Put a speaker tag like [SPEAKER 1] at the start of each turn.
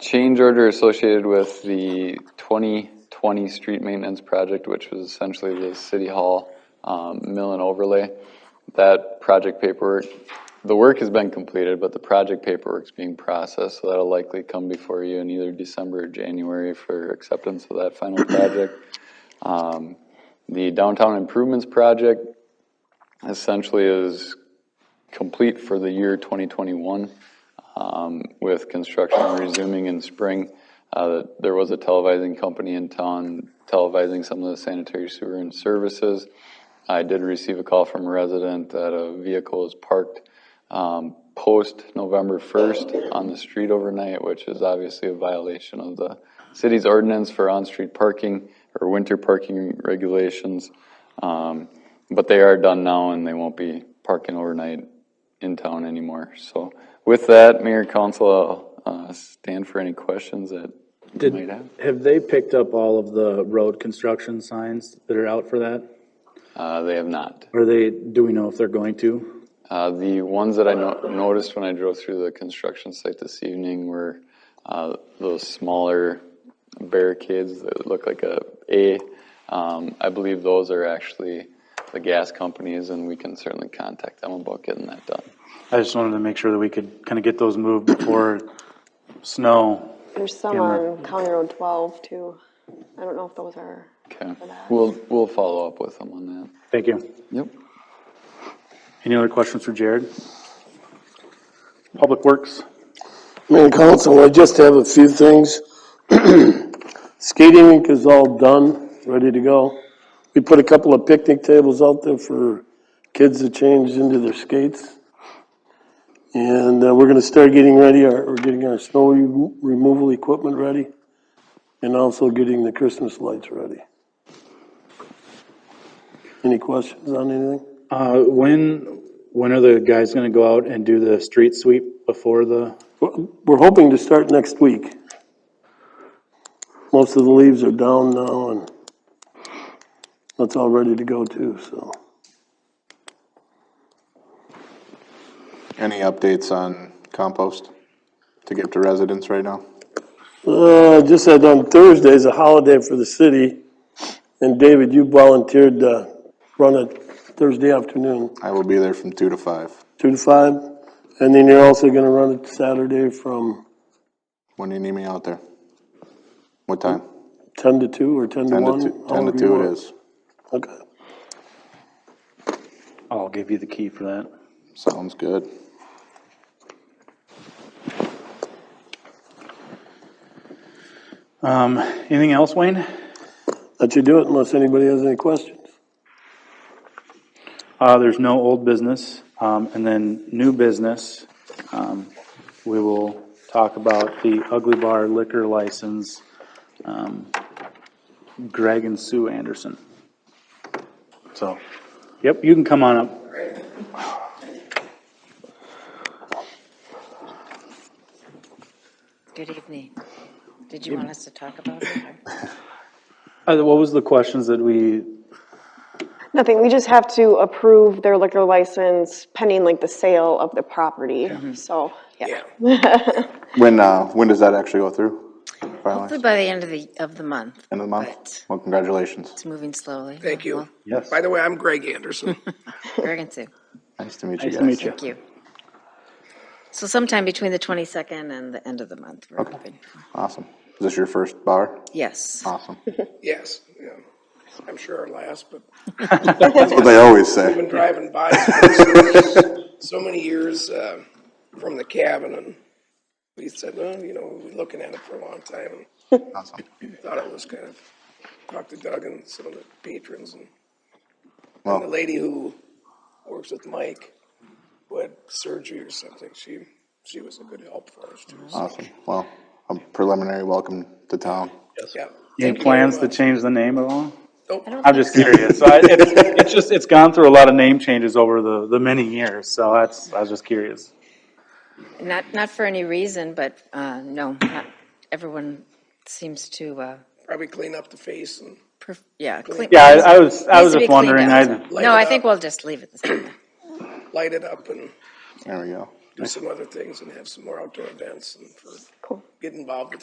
[SPEAKER 1] change order associated with the 2020 street maintenance project, which was essentially the city hall um, mill and overlay. That project paperwork, the work has been completed, but the project paperwork's being processed, so that'll likely come before you in either December or January for acceptance of that final project. Um, The downtown improvements project essentially is complete for the year 2021 um, with construction resuming in spring. Uh, There was a televising company in town televising some of the sanitary sewer and services. I did receive a call from a resident that a vehicle is parked um, post November 1st on the street overnight, which is obviously a violation of the city's ordinance for on-street parking or winter parking regulations. Um, But they are done now and they won't be parking overnight in town anymore. So with that, Mayor Council, I'll uh, stand for any questions that you might
[SPEAKER 2] Did,
[SPEAKER 1] have.
[SPEAKER 2] have they picked up all of the road construction signs that are out for that?
[SPEAKER 1] Uh, They have not.
[SPEAKER 2] Are they, do we know if they're going to?
[SPEAKER 1] Uh, The ones that I no- noticed when I drove through the construction site this evening were uh, those smaller barricades that look like a A. Um, I believe those are actually the gas companies, and we can certainly contact them about getting that done.
[SPEAKER 2] I just wanted to make sure that we could kind of get those moved before snow.
[SPEAKER 3] There's some
[SPEAKER 2] Camera.
[SPEAKER 3] on County Road 12 too. I don't know if those are.
[SPEAKER 1] Okay, we'll, we'll follow up with them on that.
[SPEAKER 2] Thank you.
[SPEAKER 1] Yep.
[SPEAKER 2] Any other questions for Jared? Public Works,
[SPEAKER 4] Mayor and council, I just have a few things. Skating rink is all done, ready to go. We put a couple of picnic tables out there for kids to change into their skates. And uh, we're gonna start getting ready, our, we're getting our snow remo- removal equipment ready and also getting the Christmas lights ready. Any questions on anything?
[SPEAKER 2] uh, when, when are the guys gonna go out and do the street sweep before the,
[SPEAKER 4] We're- We're hoping to start next week. Most of the leaves are down now and that's all ready to go too, so.
[SPEAKER 5] Any updates on compost to give to residents right now?
[SPEAKER 4] Uh, just said on Thursday is a holiday for the city. And David, you volunteered to run it Thursday afternoon,
[SPEAKER 5] I will be there from two to five.
[SPEAKER 4] two to five. And then you're also gonna run it Saturday from
[SPEAKER 5] When do you need me out there? What time?
[SPEAKER 4] ten to two or ten to
[SPEAKER 5] Ten to
[SPEAKER 4] one?
[SPEAKER 5] two, ten to
[SPEAKER 4] however you
[SPEAKER 5] two it
[SPEAKER 4] want.
[SPEAKER 5] is.
[SPEAKER 4] Okay.
[SPEAKER 2] I'll give you the key for that.
[SPEAKER 5] Sounds good.
[SPEAKER 2] Um, anything else, Wayne?
[SPEAKER 4] Let you do it unless anybody has any questions.
[SPEAKER 2] Uh, there's no old business, um, and then new business. Um, we will talk about the Ugly Bar liquor license. Um, Greg and Sue Anderson. So, yep, you can come on up.
[SPEAKER 6] Good evening. Did you want us to talk about it? or-
[SPEAKER 2] Uh, what was the questions that we,
[SPEAKER 3] Nothing, we just have to approve their liquor license pending like the sale of the property, so, yeah.
[SPEAKER 5] When, uh, when does that actually go through?
[SPEAKER 6] Hopefully
[SPEAKER 5] Finally,
[SPEAKER 6] by the end of the, of the month.
[SPEAKER 5] end of the
[SPEAKER 6] but
[SPEAKER 5] month? Well, congratulations.
[SPEAKER 6] It's moving slowly.
[SPEAKER 7] Thank you.
[SPEAKER 6] Well,
[SPEAKER 2] yes,
[SPEAKER 7] By the way, I'm Greg Anderson.
[SPEAKER 6] Greg and Sue,
[SPEAKER 5] Nice to meet you
[SPEAKER 2] Nice
[SPEAKER 5] guys.
[SPEAKER 2] to meet you.
[SPEAKER 6] thank you. So sometime between the 22nd and the end of the month, we're hoping.
[SPEAKER 5] Awesome. Is this your first bar?
[SPEAKER 6] Yes.
[SPEAKER 5] Awesome.
[SPEAKER 7] Yes, yeah. I'm sure our last, but
[SPEAKER 5] That's what they always
[SPEAKER 7] I've
[SPEAKER 5] say.
[SPEAKER 7] been driving by for so many years uh, from the cabin, and we said, well, you know, we've been looking at it for a long time,
[SPEAKER 5] Awesome.
[SPEAKER 7] and thought it was kind of, talked to Doug and some of the patrons, and the
[SPEAKER 5] Well,
[SPEAKER 7] lady who works with Mike, who had surgery or something, she, she was a good help for us, too. so,
[SPEAKER 5] awesome. Well, a preliminary welcome to town.
[SPEAKER 7] yeah.
[SPEAKER 2] any
[SPEAKER 7] Thank you
[SPEAKER 2] plans to
[SPEAKER 7] very much.
[SPEAKER 2] change the name at all?
[SPEAKER 7] Nope.
[SPEAKER 2] I'm just curious. So I, it's, it's just, it's gone through a lot of name changes over the, the many years, so that's, I was just curious.
[SPEAKER 6] Not, not for any reason, but, uh, no, not, everyone seems to, uh,
[SPEAKER 7] Probably clean up the face and
[SPEAKER 6] perf- yeah. clean-
[SPEAKER 2] Yeah, I, I was, I
[SPEAKER 6] needs
[SPEAKER 2] was
[SPEAKER 6] to be
[SPEAKER 2] just
[SPEAKER 6] cleaned
[SPEAKER 2] wondering,
[SPEAKER 6] up,
[SPEAKER 2] I,
[SPEAKER 6] so-
[SPEAKER 7] Light
[SPEAKER 6] No,
[SPEAKER 7] it
[SPEAKER 6] I
[SPEAKER 7] up.
[SPEAKER 6] think we'll just leave it the same.
[SPEAKER 7] light it up and
[SPEAKER 5] There we go.
[SPEAKER 7] do some other things and have some more outdoor events and for,
[SPEAKER 3] Cool.
[SPEAKER 7] get involved with